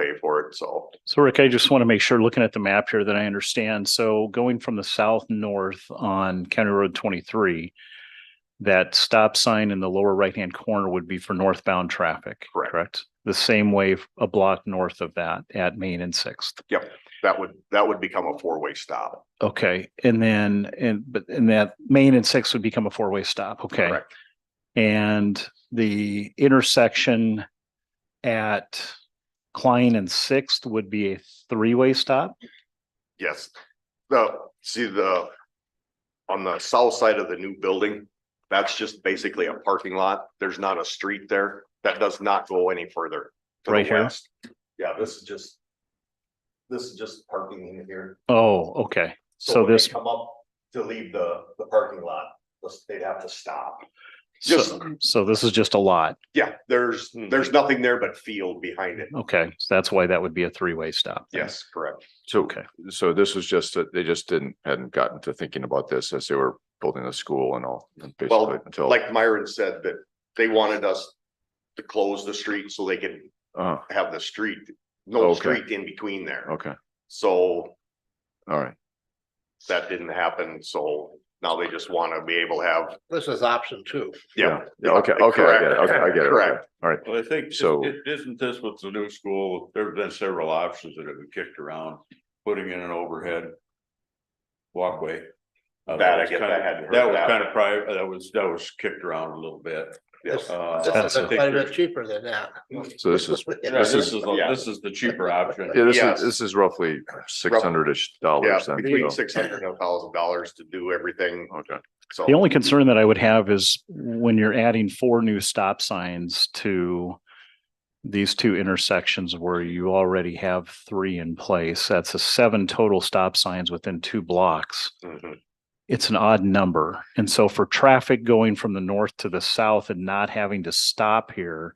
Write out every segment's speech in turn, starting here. pay for it, so. So Rick, I just want to make sure, looking at the map here, that I understand. So going from the south north on County Road twenty-three, that stop sign in the lower right-hand corner would be for northbound traffic, Correct. correct? The same way a block north of that at Main and Sixth. That would, that would become a four-way stop. Okay, and then, and, but, and that Main and Sixth would become a four-way stop, okay? Correct. And the intersection at Klein and Sixth would be a three-way stop? Yes. The, see the, on the south side of the new building, that's just basically a parking lot. There's not a street there. That does not go any further. to the Right here? west. Yeah, this is just, this is just parking in here. Oh, okay. So when they this- Come up to leave the, the parking lot, they'd have to stop. Just- So, so this is just a lot. Yeah, there's, Hmm. there's nothing there but field behind it. Okay, so that's why that would be a three-way stop. then. Yes, correct. So, Okay, so this was just that they just didn't, hadn't gotten to thinking about this as they were building the school and all. and Well, basically until Like Myron said, that they wanted us to close the street so they could Uh, have the street, no Okay. street in between there. okay, So all right. that didn't happen, so now they just want to be able to have, This is option two. yeah. Yeah, okay, okay, I get it, okay, I get it. okay, Correct. All right, Well, I think, So- so isn't this with the new school, there have been several options that have been kicked around, putting in an overhead walkway. Oh, Uh, That I was get, kinda- I hadn't heard That was that. kind of private, that was, that was kicked around a little bit. Yes. oh, Uh, I This is Expensive. think quite a bit there's- cheaper than that. so this is, yeah, This is, the- this is the cheaper option. yeah, this Yes. is, this is roughly six hundred-ish Yeah, dollars then. between so- six hundred and a thousand dollars to do everything, Okay, so. the only concern that I would have is when you're adding four new stop signs to these two intersections where you already have three in place, that's a seven total stop signs within two blocks. Mhm. It's an odd number. And so for traffic going from the north to the south and not having to stop here,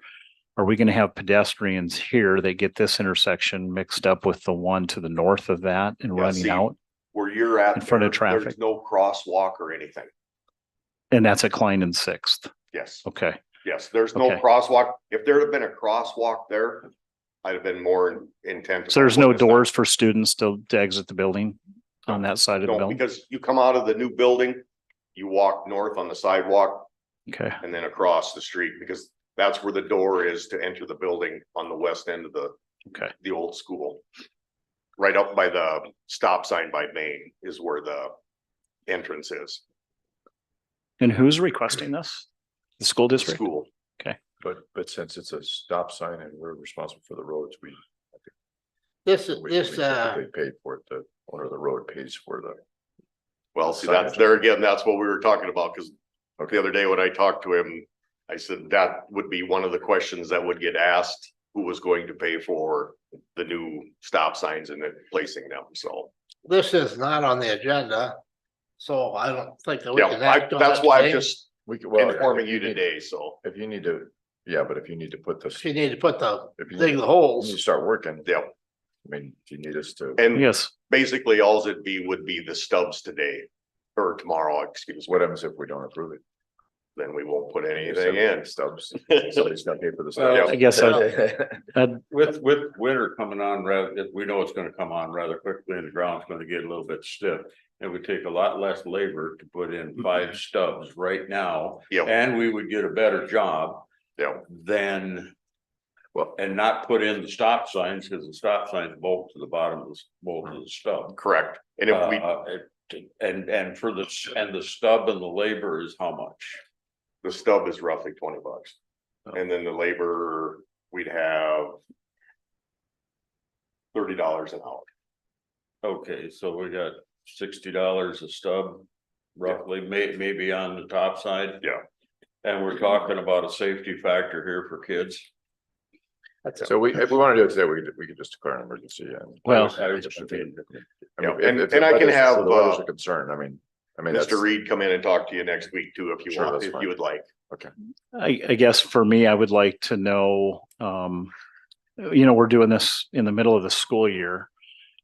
are we going to have pedestrians here that get this intersection mixed up with the one to the north of that and Yeah, running see, out? Where you're at. In front of there- traffic. There's no crosswalk or anything. And that's at Klein and Sixth. Yes, Okay. yes, there's no Okay. crosswalk. If there had been a crosswalk there, I'd have been more intent. So there's about no what this- doors for students to to exit the building on that side of the No, building? because you come out of the new building, you walk north on the sidewalk, Okay. and then across the street, because that's where the door is to enter the building on the west end of the. Okay. The old school. Right up by the stop sign by Main is where the entrance is, And who's requesting this? The school the district? school. but, but since it's a stop sign and we're responsible for the roads, we. This, we- we this, uh, typically Pay for it, the owner of the road pays for the. Well, see, that's Signage. there again, that's what we were talking about, because Okay. the other day when I talked to him, I said that would be one of the questions that would get asked. Who was going to pay for the new stop signs and then placing them, so. this is not on the agenda, so I don't think that we Yeah, can I, act on that's it why I'm today. just We could, well. informing you if need- today, so, If you need to, yeah, but if you need to put this, She need to put the, if you need dig when you the holes. start working, I yeah, mean, if you need us to, and Yes. basically alls it'd be would be the stubs today. Or tomorrow, excuse me, what happens if we don't approve it? then we won't put anything Anything in. Stubs, So, somebody's gonna pay for the Well, stubs. I guess I- that- With, with winter coming on rather, if we know it's gonna come on rather quickly and the ground's gonna get a little bit stiff. It would take a lot less labor to put in Mm-hmm. five stubs right now Yeah, and we would get a better job yeah, than. Well- and not put in the stop signs, because the stop signs bolt to the bottom of the, bolt to the stub. correct. And if we, Uh, it- And, and for the, s- and the stub and the labor is how much? the stub is roughly twenty bucks. And then the labor, we'd have. Thirty dollars an hour. Okay, so we got sixty dollars a stub roughly, may, maybe on the top side. Yeah. And we're talking about a safety factor here for kids. That's a- So we, if we wanna do it today, we could, we could just declare an emergency and. Well- I mean, if- Yeah, if- and- if and I the can weather's- have, so The weather's uh, a concern, I mean, I mean, that's, Mr. Reed, come in and talk to you next week too, if you Sure, want, that's if fine. you would like. I, I guess for me, I would like to know, um, you know, we're doing this in the middle of the school year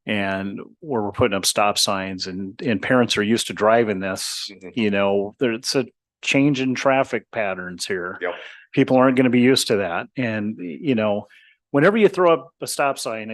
and where we're putting up stop signs and, and parents are used to driving this, Mhm. you know, there, it's a change in traffic patterns here. Yep. People aren't going to be used to that. And, you know, whenever you throw up a stop sign,